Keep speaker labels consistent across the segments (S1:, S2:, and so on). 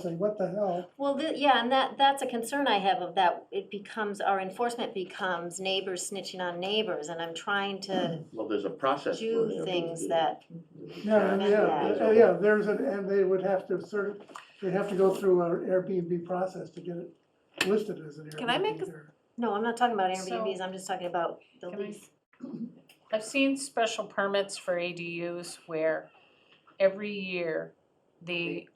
S1: say, what the hell?
S2: Well, the, yeah, and that, that's a concern I have of that, it becomes, our enforcement becomes neighbors snitching on neighbors, and I'm trying to
S3: Well, there's a process for it. I
S2: do
S3: mean,
S2: things
S3: you-
S2: that,
S1: Yeah, and
S2: Prevent
S1: yeah,
S2: that.
S1: yeah, yeah, there's an, and they would have to sort of, they'd have to go through our Airbnb process to get it listed as an Airbnb.
S4: Can I make a-
S1: there.
S2: no, I'm not talking about
S4: So-
S2: Airbnbs, I'm just talking about the
S4: Can I-
S2: lease.
S4: I've seen special permits for ADUs where every year the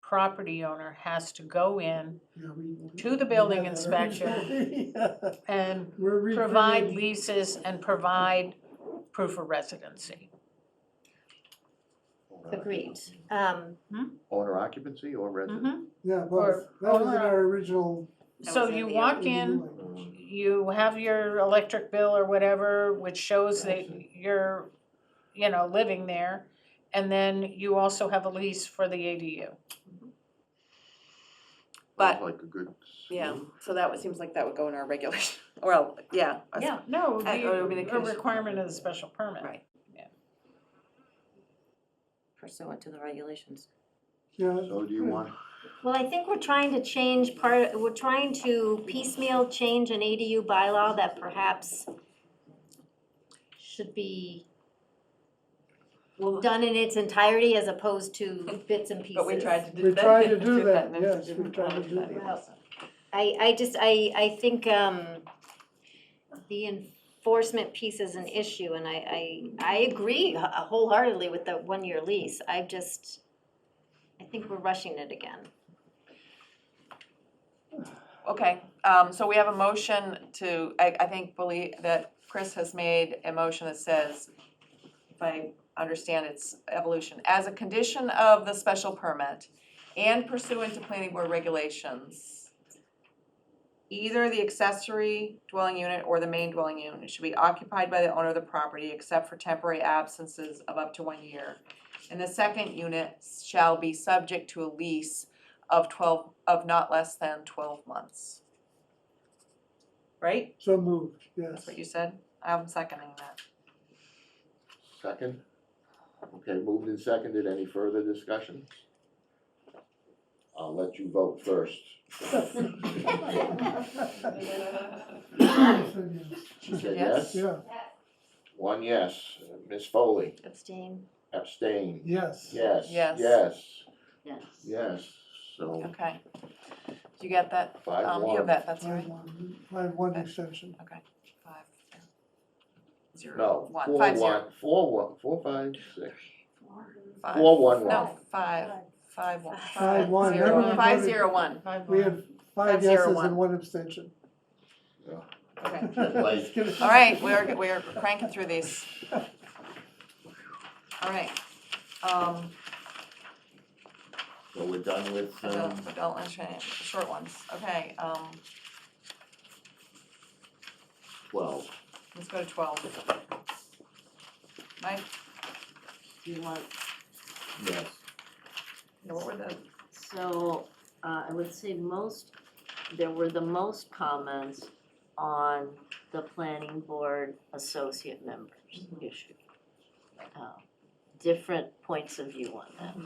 S4: property owner has to go in
S1: Yeah, we-
S4: to the building
S1: Yeah,
S4: inspector.
S1: yeah.
S4: and
S1: We're recreating-
S4: provide leases and provide proof of residency.
S2: Agreed, um,
S3: Owner occupancy or
S5: Mm-hmm.
S3: resident.
S4: Mhm.
S1: Yeah, both,
S4: or-
S1: that was in
S4: or-
S1: our original.
S5: That
S4: So
S5: was in
S4: you
S5: the E
S4: walk in,
S1: language.
S4: you have your electric bill or whatever, which shows that you're, you know, living there. And then you also have a lease for the ADU.
S5: But-
S3: Like a good.
S5: Yeah,
S3: smooth-
S5: so that would, seems like that would go in our regulation, well, yeah. us-
S4: Yeah, no,
S5: Uh, or it would be
S4: the,
S5: the
S4: a
S5: case-
S4: requirement of the special permit.
S5: Right.
S2: pursuant to the regulations.
S1: Yeah.
S3: So do you want,
S2: Well, I think we're trying to change part, we're trying to piecemeal change an ADU bylaw that perhaps should be
S5: Well,
S2: done in its entirety as opposed to bits and pieces.
S5: But we tried to do that.
S1: We tried to do that,
S5: and it
S1: yes, we
S5: didn't
S1: tried to
S5: work,
S1: do
S5: but
S1: that.
S5: yeah, so.
S2: I, I just, I, I think, um, the enforcement piece is an issue, and I, I, I agree h- uh, wholeheartedly with the one-year lease, I just, I think we're rushing it again.
S5: Okay, um, so we have a motion to, I, I think, believe, that Chris has made a motion that says, if I understand its evolution, as a condition of the special permit and pursuant to planning board regulations, either the accessory dwelling unit or the main dwelling unit should be occupied by the owner of the property except for temporary absences of up to one year. And the second unit shall be subject to a lease of twelve, of not less than twelve months. Right?
S1: So moved,
S5: That's
S1: yes.
S5: what you said? I'm seconding that.
S3: second? Okay, moved and seconded, any further discussion? I'll let you vote first. She
S5: said
S3: said
S5: yes.
S3: yes?
S1: Yeah,
S3: One yes, Ms. Foley
S2: Abstain.
S3: abstain.
S1: yes.
S3: Yes,
S5: Yes.
S3: yes,
S2: Yes.
S3: yes, so
S5: Okay. Do you get that?
S3: five
S5: Um, you have
S3: one.
S5: that, that's
S1: I have
S5: right.
S1: one, I have one extension.
S5: Five, yeah. Zero,
S3: No,
S5: one,
S3: four
S5: five, zero,
S3: one, four one, four five, six,
S5: five.
S3: four one one.
S5: No, five, five, one.
S2: Five,
S1: one.
S5: zero,
S4: Everyone
S5: five,
S1: voted-
S5: zero, one.
S1: We have five
S5: Five Um, zero
S1: yeses
S5: one.
S1: and one abstention.
S5: Okay.
S3: Like-
S1: All
S5: All right, we're, we're cranking through these. All right. Um,
S3: So we're done with, um,
S5: adult, adult and tra- short ones. Okay, um,
S3: twelve.
S5: let's go to twelve. Mike, do you want
S3: Yes.
S5: Yeah, what were the,
S6: So, uh, I would say most, there were the most comments on the planning board associate members issue. Uh, Different points of view on that.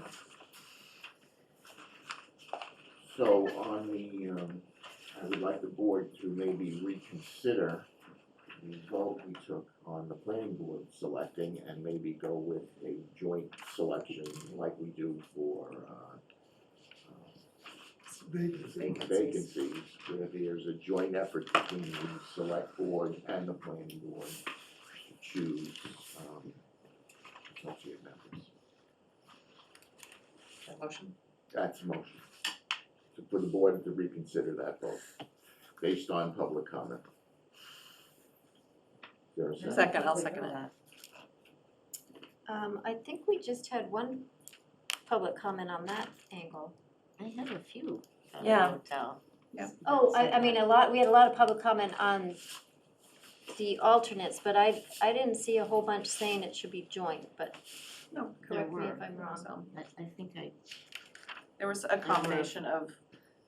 S3: So on the, um, I would like the board to maybe reconsider the vote we took on the planning board selecting and maybe go with a joint selection like we do for, uh, vac- vacancies, where there's a joint effort between the select board and the planning board to choose, um, associate members.
S5: the motion?
S3: That's a motion. To- For the board to reconsider that vote, based on public comment. Is there a second?
S5: Second, I'll second it.
S2: Um, I think we just had one public comment on that angle.
S6: I had a few uh, at the
S5: Yeah.
S6: hotel.
S5: Yeah.
S2: Oh, I, I mean, a lot, we had a lot of public comment on the alternates, but I, I didn't see a whole bunch saying it should be joint, but
S5: No,
S2: correct me if I'm wrong.
S5: So,
S6: I, I think I,
S5: There was a combination of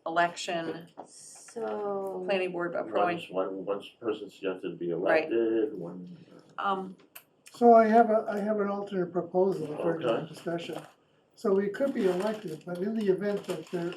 S5: election,
S2: So.
S5: planning board
S3: One,
S5: appoint,
S3: one, one person suggested to be
S5: Right.
S3: elected, one, uh,
S5: um,
S1: So I have a, I have an alternate proposal for
S3: Okay.
S1: discussion. So we could be elected, but in the event that there